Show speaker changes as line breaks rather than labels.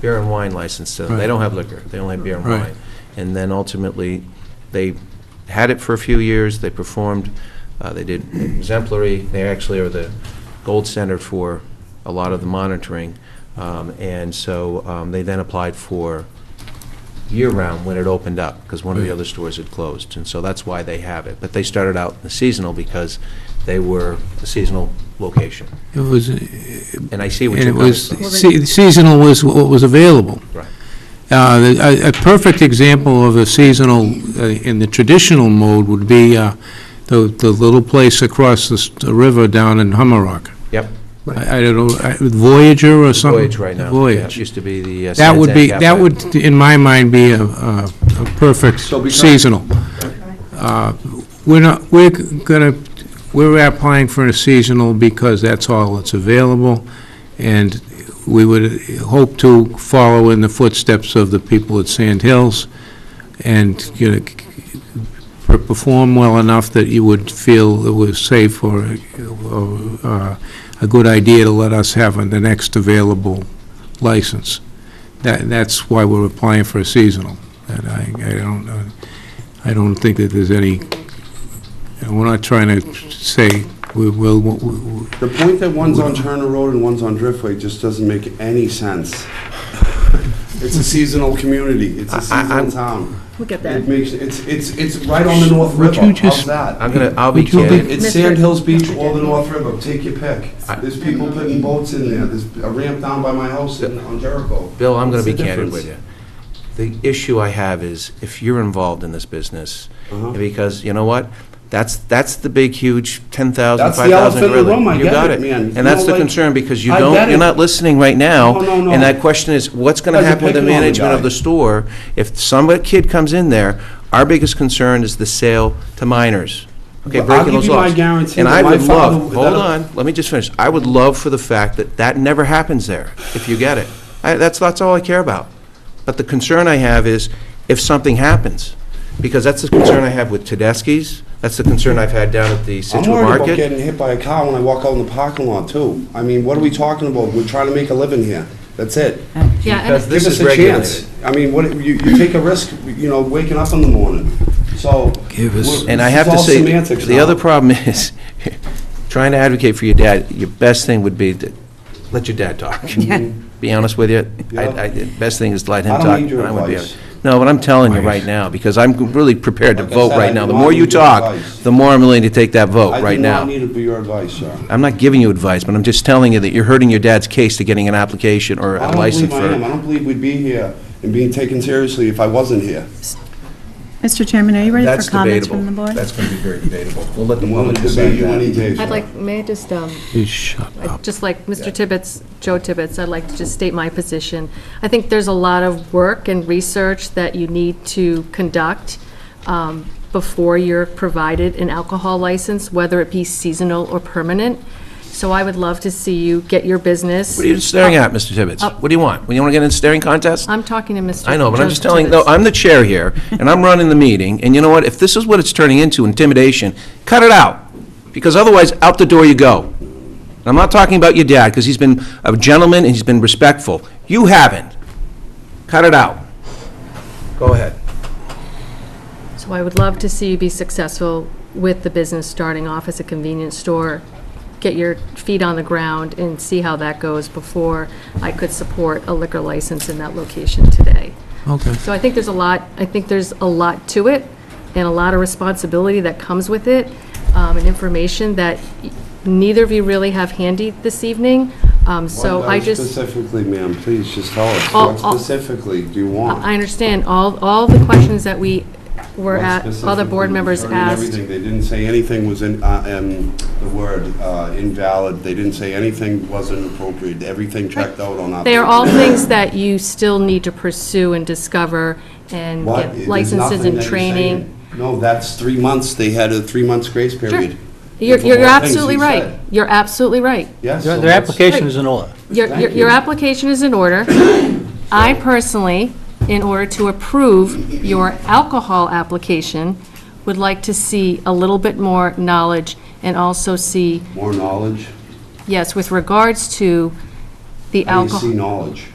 beer and wine license to them. They
Right.
don't have liquor, they only have beer and
Right.
wine. And then ultimately, they had it for a few years, they performed, uh, they did exemplary, they actually are the gold standard for a lot of the monitoring. Um, And so um, they then applied for year-round when it opened up, because one of the
Right.
other stores had closed. And so that's why they have it. But they started out in the seasonal because they were a seasonal location.
It was, and
And I see what you're
it
coming
was,
from.
se- seasonal was what was available.
Right.
Uh, the- A a perfect example of a seasonal, uh, in the traditional mode, would be uh, the the little place across the s- the river down in Hummerock.
Yep.
I I don't know, I- Voyager or something?
Voyage right now. Yeah, it
Voyage.
Used to be the. uh,
That would be,
Sands End
that
Cafe.
would, in my mind, be a a- a perfect
So be nice.
seasonal. Uh, We're not, we're gonna, we're applying for a seasonal because that's all that's available, and we would hope to follow in the footsteps of the people at Sand Hills and, you know, c- c- per- perform well enough that you would feel it was safe or, or, uh, a good idea to let us have on the next available license. That, that's why we're applying for a seasonal, and I, I don't, uh, I don't think that there's any, and we're not trying to say, we will, we- we-
The point that one's on Turner Road and one's on Driftway just doesn't make any sense. It's a seasonal community, it's a seasonal town.
Look at
It
that.
makes, it's, it's, it's right on the North
Would
River,
you just-
how's that?
I'm gonna, I'll be
Would you
candid.
It's
Mr.
Sand Hills Beach or the North River, take your pick.
I-
There's people putting boats in there, there's a ramp down by my house in, on Jericho.
Bill, I'm gonna
What's
be
the
candid with
difference?
you. The issue I have is, if you're involved in this business,
Uh-huh.
because, you know what? That's, that's the big, huge 10,000,
That's the elephant
5,000
in the
gorilla.
room, I
You
get
got
it, man. You
And that's
know,
the
like-
concern, because you
I
don't,
get
you're
it.
not listening right now.
No, no, no.
And that question is, what's gonna
Guys are
happen with the
picking on the
management of
guy.
the store? If some kid comes in there, our biggest concern is the sale to minors. Okay,
Well, I'll
breaking
give
those
you my
laws.
guarantee
And
that
I
my
would love,
father-
hold
that-
on, let me just finish. I would love for the fact that that never happens there, if you get it. I, that's, that's all I care about. But the concern I have is if something happens, because that's the concern I have with Tedeschi's, that's the concern I've had down at the
I'm
Situate
worried about
Market.
getting hit by a car when I walk out in the parking lot too. I mean, what are we talking about? We're trying to make a living here, that's it.
Yeah,
Because
and
this
Give us
is
a
regulated.
chance. I mean, what, you, you take a risk, you know, waking up in the morning, so.
Give us-
we're-
And I
this
have
is
to
all
say,
semantics
the
now.
other problem is, trying to advocate for your dad, your best thing would be to let your dad talk. Be honest with you, I, I, the best thing is to let him
I
talk.
don't need your
and I would be
advice.
honest. No, but I'm telling you right now, because I'm really prepared to
Like I
vote
said,
right
I
now.
do
The
not
more
need
you
your
talk,
advice.
the more I'm willing to take that vote
I
right
do not
now.
need to be your advice, sir.
I'm not giving you advice, but I'm just telling you that you're hurting your dad's case to getting an application or
I
a
don't
license
believe
for.
I am. I don't believe we'd be here and being taken seriously if I wasn't here.
Mr. Chairman, are you ready
That's
for comments
debatable.
from the board?
That's going to be very debatable. We'll let the
I'm willing
public
to debate
decide
you any
that.
day, sir.
I'd like, may I just, um,
Please shut
I-
up.
just like Mr. Tibbetts, Joe Tibbetts, I'd like to just state my position. I think there's a lot of work and research that you need to conduct um, before you're provided an alcohol license, whether it be seasonal or permanent. So I would love to see you get your business.
What are you staring at, Mr. Tibbetts?
Up.
What do you want? You want to get in a staring contest?
Uh, I'm talking to Mr.
I know, but I'm
Joe
just telling, no,
Tibbetts.
I'm the chair here, and I'm running the meeting, and you know what? If this is what it's turning into, intimidation, cut it out, because otherwise, out the door you go. And I'm not talking about your dad, because he's been a gentleman and he's been respectful. You haven't. Cut it out. Go ahead.
So I would love to see you be successful with the business, starting off as a convenience store, get your feet on the ground and see how that goes before I could support a liquor license in that location today.
Okay.
So I think there's a lot, I think there's a lot to it, and a lot of responsibility that comes with it, um, and information that neither of you really have handy this evening, Um, so
What
I
about
just...
Specifically, ma'am, please just tell us,
All-
what
all-
specifically do you want?
I understand all, all the questions that we were
What
at, other
specifically
board members
concerning
asked.
everything? They didn't say anything was in, uh, um, the word uh, invalid, they didn't say anything wasn't appropriate, everything checked out on our.
They are all things that you still need to pursue and discover and
What?
get
There's
licenses
nothing
and
that you're
training.
saying. No, that's three months, they had a three months grace period.
You're,
For
you're
all things
absolutely
you
right.
said.
You're absolutely right.
Yes.
Their
so
their
let's-
application is in order.
Your,
Thank
your,
you.
your application is in order. I personally, in order to approve your alcohol application, would like to see a little bit more knowledge and also see,
More knowledge,
yes, with regards to the
how do you
alcohol.
see E knowledge?